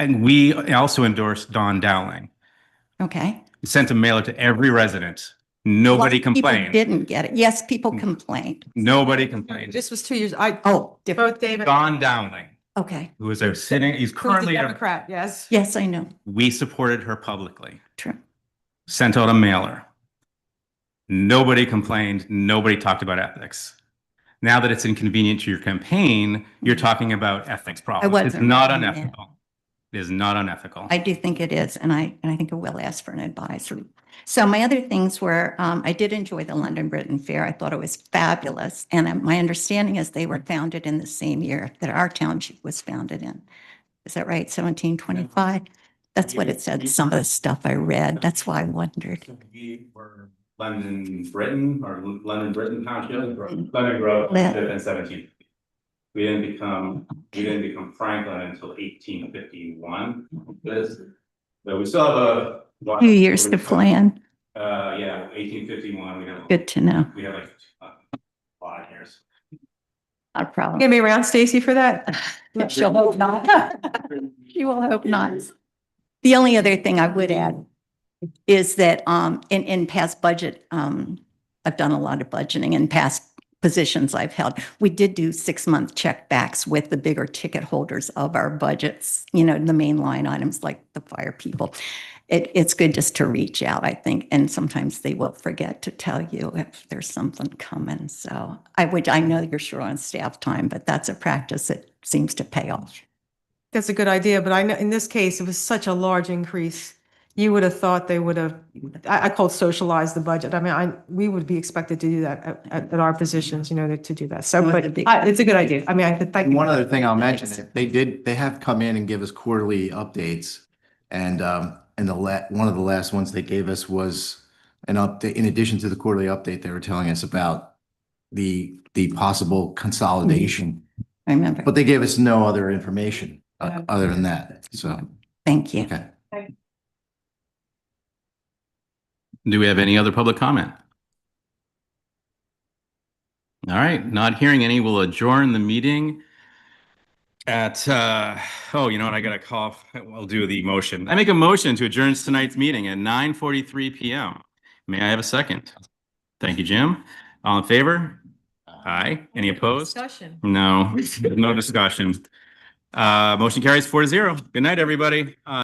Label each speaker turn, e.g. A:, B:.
A: And we also endorsed Don Dowling.
B: Okay.
A: We Sent a mailer to every resident. Nobody
B: Lots of people
A: complained.
B: Didn't get it. Yes, people
A: Mm.
B: complained.
A: Nobody complained.
C: This was two years, I,
B: Oh, different.
C: both David.
A: Don Dowling,
B: Okay.
A: who is a sitting, he's
C: who's a
A: currently, a-
C: Democrat, yes.
B: Yes, I know.
A: we supported her publicly.
B: True.
A: sent out a mailer. Nobody complained. Nobody talked about ethics. Now that it's inconvenient to your campaign, you're talking about ethics problems. It's
B: wasn't
A: not
B: reading that.
A: unethical. It is not unethical.
B: I do think it is, and I, and I think I will ask for an advisory. So my other things were, um, I did enjoy the London Britain Fair. I thought it was fabulous. And uh, my understanding is they were founded in the same year that our township was founded in. Is that right? Seventeen twenty-five? That's what it said, some of the stuff I read. That's why I wondered.
A: London, Britain, or London, Britain Township,
B: Grove-
A: London Grove,
B: Le-
A: seventeen. We didn't become,
B: we
A: didn't become Franklin until eighteen fifty-one. But we still have a.
B: Few years to plan.
A: Uh, yeah, eighteen fifty-one, we have.
B: Good to know.
A: We have like uh, a lot of hairs.
B: Not a problem.
C: Gonna be around Stacy for that?
B: She'll hope not. She will hope not. The only other thing I would add is that um, in, in past budget, um, I've done a lot of budgeting in past positions I've held. We did do six-month checkbacks with the bigger ticket holders of our budgets, you know, the main line items like the fire people. It, it's good just to reach out, I think, and sometimes they will forget to tell you if there's something coming. So I would, I know you're short on staff time, but that's a practice that seems to pay off.
C: That's a good idea, but I know, in this case, it was such a large increase. You would have thought they would have, I, I called socialize the budget. I mean, I, we would be expected to do that at- at, at our positions, you know, to do that. So,
B: Well,
C: but
B: it'd be-
C: I- it's a good idea. I mean, I could thank.
D: And one other thing I'll mention,
B: Thanks.
D: is they did, they have come in and give us quarterly updates. And, um, and the la, one of the last ones they gave us was an update, in addition to the quarterly update, they were telling us about the, the possible consolidation,
B: I remember.
D: but they gave us no other information uh,
C: Okay.
D: other than that. So,
B: Thank you.
D: okay.
A: Do we have any other public comment? All right, not hearing any, we'll adjourn the meeting at, uh, oh, you know what, I got a cough. I'll do the motion. I make a motion to adjourn tonight's meeting at 9:43 PM. May I have a second? Thank you, Jim. All in favor? Aye. Any opposed?
C: Discussion.
A: No, no discussion. Uh, motion carries four to zero. Good night, everybody. Uh,